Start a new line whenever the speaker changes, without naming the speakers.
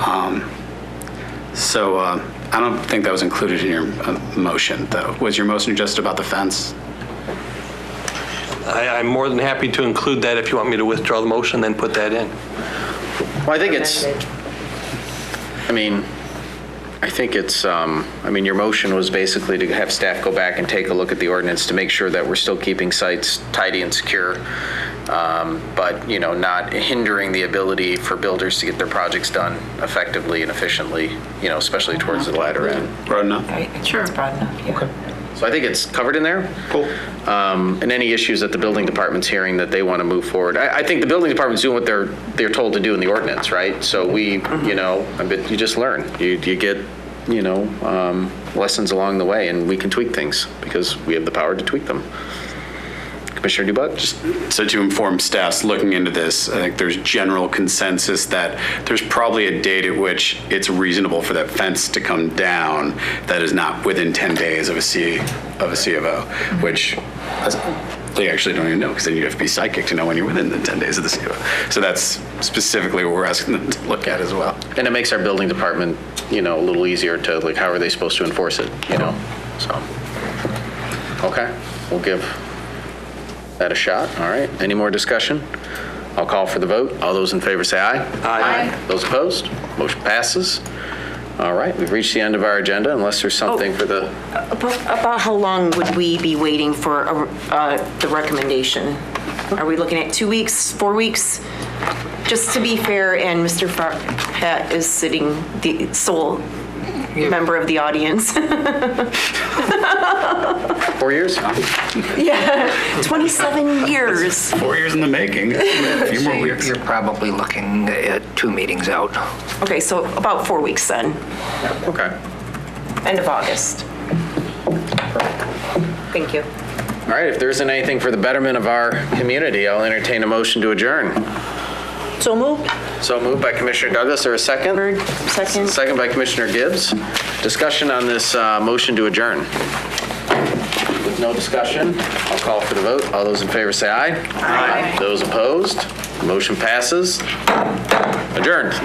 Um, So uh, I don't think that was included in your uh, motion, though. Was your motion just about the fence?
I, I'm more than happy to include that if you want me to withdraw the motion, then put that in.
Well, I think it's, I mean, I think it's, um, I mean, your motion was basically to have staff go back and take a look at the ordinance to make sure that we're still keeping sites tidy and secure, um, but, you know, not hindering the ability for builders to get their projects done effectively and efficiently, you know, especially towards the latter end.
Broad enough?
Right, sure. It's broad enough, yeah.
So I think it's covered in there.
Cool.
Um, and any issues that the building department's hearing that they want to move forward. I, I think the building department's doing what they're, they're told to do in the ordinance, right? So we, you know, I mean, you just learn. You, you get, you know, um, lessons along the way, and we can tweak things because we have the power to tweak them. Commissioner Dubak, just
So to inform staffs looking into this, I think there's general consensus that there's probably a date at which it's reasonable for that fence to come down that is not within 10 days of a C, of a C of O, which that's- they actually don't even know because then you have to be psychic to know when you're within the 10 days of the C of O. So that's specifically what we're asking them to look at as well.
and it makes our building department, you know, a little easier to, like, how are they supposed to enforce it, you know? So, okay, we'll give that a shot, all right. Any more discussion? I'll call for the vote. All those in favor say aye.
Aye.
Those opposed? Motion passes. All right, we've reached the end of our agenda unless there's something for the,
About about how long would we be waiting for a- uh, the recommendation? Are we looking at two weeks, four weeks? Just to be fair, and Mr. Pat is sitting, the sole member of the audience.
four years?
27 years.
Four years in the making, a few
So
more
you're
weeks.
you're probably looking at two meetings out.
Okay, so about four weeks then,
Okay.
end of August. Thank you.
All right, if there isn't anything for the betterment of our community, I'll entertain a motion to adjourn.
So moved.
So moved by Commissioner Douglas, or a second?
second.
Second by Commissioner Gibbs. Discussion on this uh, motion to adjourn. With no discussion, I'll call for the vote. All those in favor say aye. Aye. Those opposed, motion passes. Adjourned.